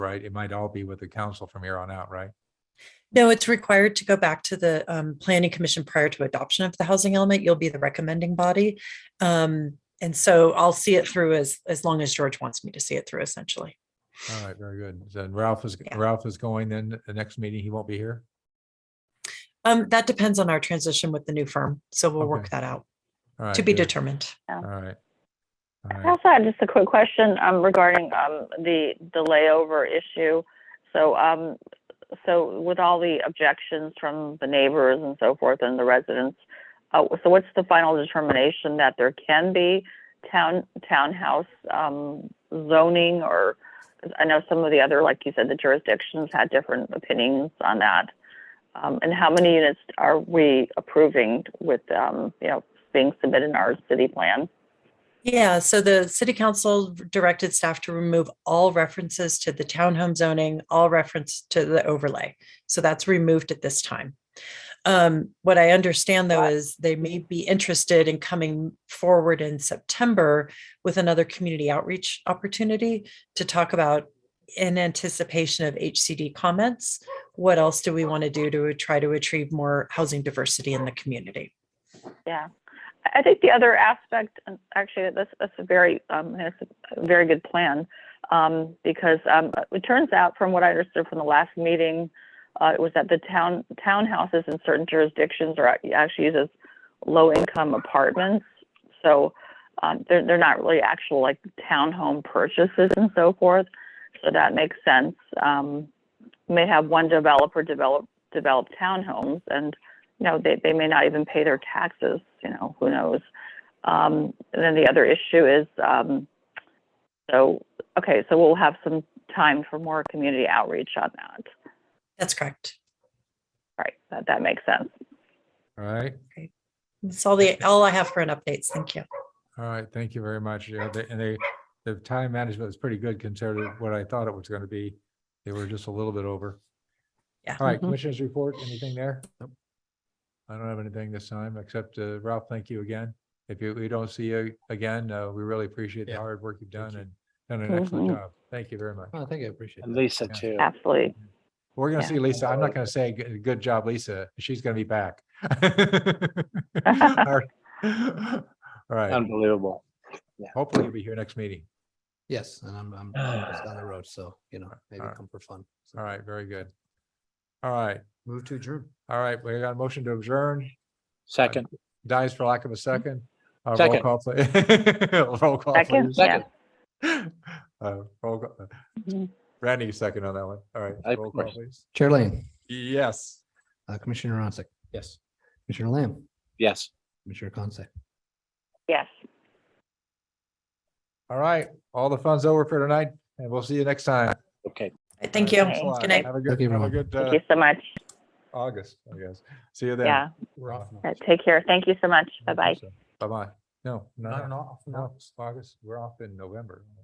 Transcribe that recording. right? It might all be with the council from here on out, right? No, it's required to go back to the um, planning commission prior to adoption of the housing element. You'll be the recommending body. Um, and so I'll see it through as, as long as George wants me to see it through essentially. All right, very good. So Ralph is, Yeah. Ralph is going then, the next meeting, he won't be here? Um, that depends on our transition with the new firm. So we'll work Okay. that out All right, to be good. determined. All right. All I right, also had just a quick question um, regarding um, the the layover issue. So, um, so with all the objections from the neighbors and so forth and the residents, uh, so what's the final determination that there can be town townhouse um, zoning or? 'cause I know some of the other, like you said, the jurisdictions had different opinions on that. Um, and how many units are we approving with, um, you know, being submitted in our city plan? Yeah, so the city council directed staff to remove all references to the townhome zoning, all reference to the overlay. So that's removed at this time. Um, what I understand though is they may be interested in coming forward in September with another community outreach opportunity to talk about in anticipation of HCD comments, what else do we want to do to try to achieve more housing diversity in the community? Yeah. I- I think the other aspect, and actually, that's, that's a very, um, that's a very good plan. Um, because, um, it turns out from what I understood from the last meeting, uh, it was that the town, townhouses in certain jurisdictions are ac- actually used as low-income apartments. So, um, they're, they're not really actual like townhome purchases and so forth. So that makes sense. Um, you may have one developer develop, develop townhomes and you know, they, they may not even pay their taxes, you know, who knows? Um, and then the other issue is, um, so, okay, so we'll have some time for more community outreach on that. That's correct. Right, that, that makes sense. all right, That's all the, all I have for an update. Thank you. all right. Thank you very much. Yeah, they- and they, the time management is pretty good compared to what I thought it was going to be. They were just a little bit over. Yeah. Mm-hmm. All right, Mhm. commissioners report, anything there? I don't have anything this time, except uh, Ralph, thank you again. If you, we don't see you again, uh, we really appreciate the Yeah, hard work you've done you. and done an excellent Mm-hmm. Mhm. job. Thank you very much. Oh, I think I appreciate And that. Lisa Yeah. too. Absolutely. We're gonna Yeah. see Lisa. I'm not gonna say g- good job, Lisa. She's gonna be back. All right. All right. Unbelievable. Hopefully you'll be here next meeting. Yes, and I'm, I'm I'm just down the road, so, you know, maybe Alright. come for fun. So, All right, very good. All right, Move to adjourn. all right. We got a motion to adjourn. Second, Dies for Mm-hmm. lack of a second. Uh, Roll Second. call, pl- roll call, Second, please. yeah. second, Uh, roll call- uh, Mhm. Randy, you second on that one. All right. Of roll call, course. please. Chair Lane, Yes. uh, Commissioner Rosick, Yes. Commissioner Lamb, yes. Commissioner Conce. Yes. All right, all the fun's over for tonight and we'll see you next time. Okay. Thank All you. right, thanks a lot. Good night. Have a Thank good, you, have a everyone. good Thank uh, you so much. August, I guess. See you then. Yeah. We're off. now. Uh, Take care. Thank you so much. Bye bye. Bye bye. No, Not no, an off. no, August, we're off in November.